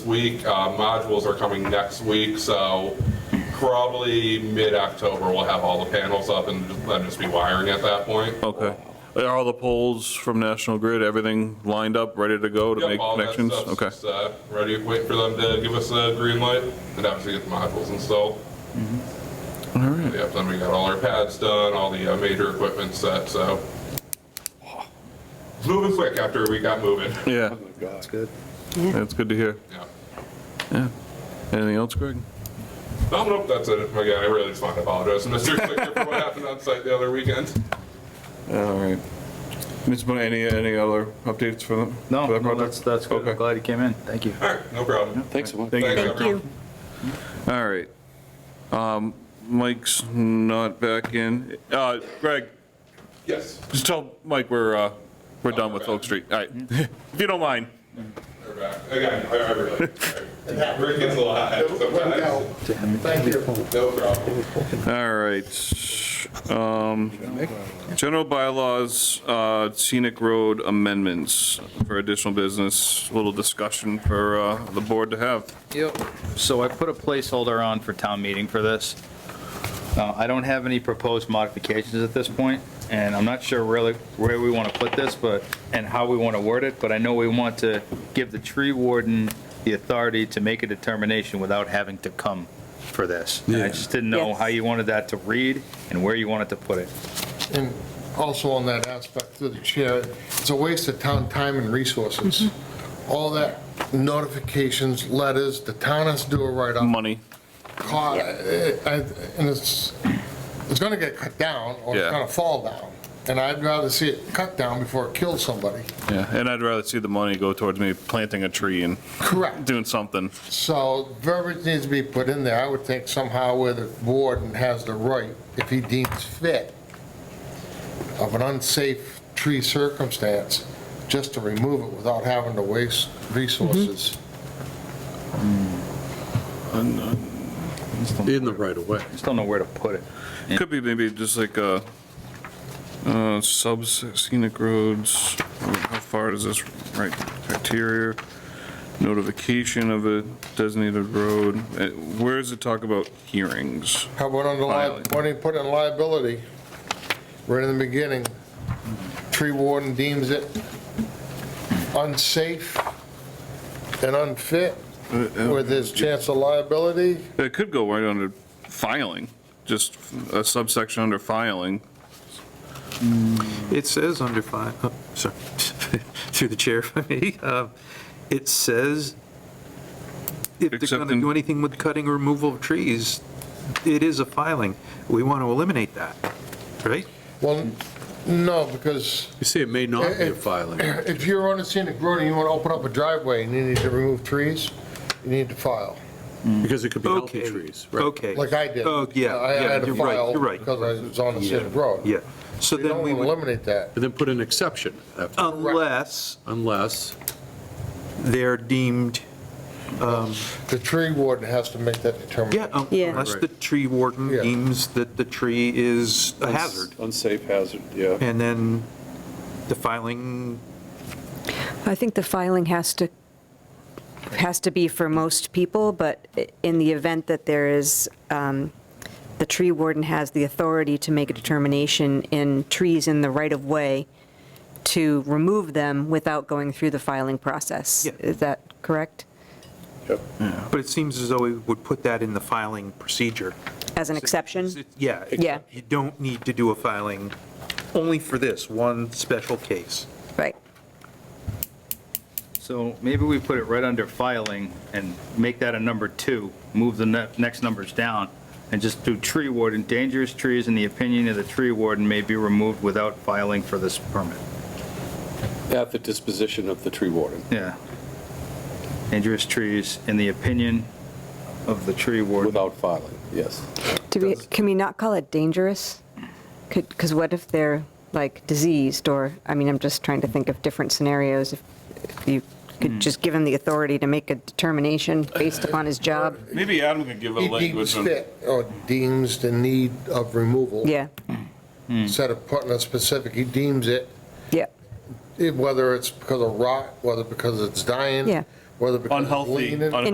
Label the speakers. Speaker 1: week. Uh, Modules are coming next week, so probably mid-October, we'll have all the panels up and just- then just be wiring at that point.
Speaker 2: Okay. Are all the poles from National Grid, everything lined up, ready to go to
Speaker 1: Yep,
Speaker 2: make
Speaker 1: all that
Speaker 2: connections?
Speaker 1: stuff's
Speaker 2: Okay.
Speaker 1: just, uh, Ready, wait for them to give us a green light and obviously get the modules installed.
Speaker 2: Mm-hmm. All right.
Speaker 1: Yep, then we got all our pads done, all the uh, major equipment set, so. It's Moving quick after we got moving.
Speaker 2: Yeah,
Speaker 3: That's good.
Speaker 2: that's good to hear.
Speaker 1: Yeah.
Speaker 2: Yeah. Anything else, Greg?
Speaker 1: No, nope, that's it. Again, I really just want to apologize to Mr. Clicker for what happened on site the other weekend.
Speaker 2: All right. Ms. Bonnet, any, any other updates for them?
Speaker 3: No,
Speaker 2: for that
Speaker 3: no,
Speaker 2: project?
Speaker 3: that's, that's good. I'm
Speaker 2: Okay.
Speaker 3: glad you came in. Thank you.
Speaker 1: All right, no problem.
Speaker 4: Thanks so much.
Speaker 3: Thank
Speaker 1: Thanks,
Speaker 3: you.
Speaker 5: Thank you.
Speaker 1: everyone.
Speaker 2: All right. Um, Mike's not back in. Uh, Greg,
Speaker 1: Yes.
Speaker 2: just tell Mike we're, uh, we're done with Oak Street. All right. If you don't mind.
Speaker 1: They're back. Again, I I really, I- Rick gets a lot sometimes.
Speaker 6: Thank you.
Speaker 1: No problem.
Speaker 2: All right. Um, General bylaws, uh, scenic road amendments for additional business, a little discussion for uh, the board to have.
Speaker 3: Yep. So I put a placeholder on for town meeting for this. Uh, I don't have any proposed modifications at this point, and I'm not sure really where we want to put this, but, and how we want to word it, but I know we want to give the tree warden the authority to make a determination without having to come for this. And I just didn't know
Speaker 5: Yes.
Speaker 3: how you wanted that to read and where you wanted to put it.
Speaker 6: And also on that aspect through the chair, it's a waste of town time and resources.
Speaker 2: Mm-hmm.
Speaker 6: All that notifications, letters, the town has to do a write-up.
Speaker 2: Money.
Speaker 6: Ca- I- I- And it's, it's gonna get cut down or
Speaker 2: Yeah.
Speaker 6: it's gonna fall down. And I'd rather see it cut down before it kills somebody.
Speaker 2: Yeah, and I'd rather see the money go towards me planting a tree and
Speaker 6: Correct.
Speaker 2: doing something.
Speaker 6: So verbiage needs to be put in there, I would think somehow where the warden has the right, if he deems fit, of an unsafe tree circumstance, just to remove it without having to waste resources.
Speaker 4: In the right of way.
Speaker 3: Just don't know where to put it.
Speaker 2: Could be maybe just like a, uh, sub scenic roads, how far is this, right, criteria, notification of a designated road, Uh, where does it talk about hearings?
Speaker 6: How about under, li-
Speaker 2: Violate.
Speaker 6: why do you put in liability? Right in the beginning, tree warden deems it unsafe and unfit, where there's chance of liability.
Speaker 2: It could go right under filing, just a subsection under filing.
Speaker 4: It says under five, oh, sorry, through the chair if I may, uh, it says if they're
Speaker 2: Except
Speaker 4: going to
Speaker 2: in-
Speaker 4: do anything with cutting or removal of trees, it is a filing. We want to eliminate that, right?
Speaker 6: Well, no, because
Speaker 7: You say it may not be a filing.
Speaker 6: If you're on a scenic road and you want to open up a driveway and you need to remove trees, you need to file,
Speaker 7: Because it could be healthy
Speaker 4: Okay.
Speaker 7: trees, right?
Speaker 4: Okay.
Speaker 6: like I did.
Speaker 4: Oh, yeah,
Speaker 6: I I had
Speaker 4: yeah,
Speaker 6: to
Speaker 4: you're right,
Speaker 6: file
Speaker 4: you're right.
Speaker 6: because I was on a scenic road.
Speaker 4: Yeah, so
Speaker 6: You
Speaker 4: then
Speaker 6: don't
Speaker 4: we would,
Speaker 6: eliminate that.
Speaker 7: And then put an exception
Speaker 4: Um,
Speaker 7: after,
Speaker 4: unless
Speaker 7: unless,
Speaker 4: they're deemed,
Speaker 6: The tree warden has to make that
Speaker 4: yeah,
Speaker 6: determination.
Speaker 4: um,
Speaker 5: Yeah.
Speaker 4: unless the tree warden
Speaker 6: Yeah.
Speaker 4: deems that the tree is a hazard.
Speaker 8: Unsafe hazard, yeah.
Speaker 4: And then the filing,
Speaker 5: I think the filing has to, has to be for most people, but i- in the event that there is, um, the tree warden has the authority to make a determination in trees in the right-of-way to remove them without going through the filing process.
Speaker 4: Yeah.
Speaker 5: Is that correct?
Speaker 4: but it seems as though we would put that in the filing procedure.
Speaker 5: As an exception?
Speaker 4: Yeah.
Speaker 5: Yeah.
Speaker 4: You don't need to do a filing only for this one special case.
Speaker 5: Right.
Speaker 3: So maybe we put it right under filing and make that a number two, move the ne- next numbers down, and just do tree warden, dangerous trees in the opinion of the tree warden may be removed without filing for this permit.
Speaker 8: At the disposition of the tree warden.
Speaker 3: Yeah. Dangerous trees in the opinion of the tree warden.
Speaker 8: Without filing, yes.
Speaker 5: Do we, can we not call it dangerous? Could, because what if they're like diseased or, I mean, I'm just trying to think of different scenarios. If if you could just give him the authority to make a determination based upon his job.
Speaker 2: Maybe Adam could give a
Speaker 6: He deems
Speaker 2: language. on-
Speaker 6: fit or deems the need of removal.
Speaker 5: Yeah,
Speaker 6: Instead of putting a specific, he deems it,
Speaker 5: yeah,
Speaker 6: eh, whether it's because of rot, whether because it's dying.
Speaker 5: Yeah.
Speaker 6: whether because it's
Speaker 2: Unhealthy,
Speaker 6: leaning.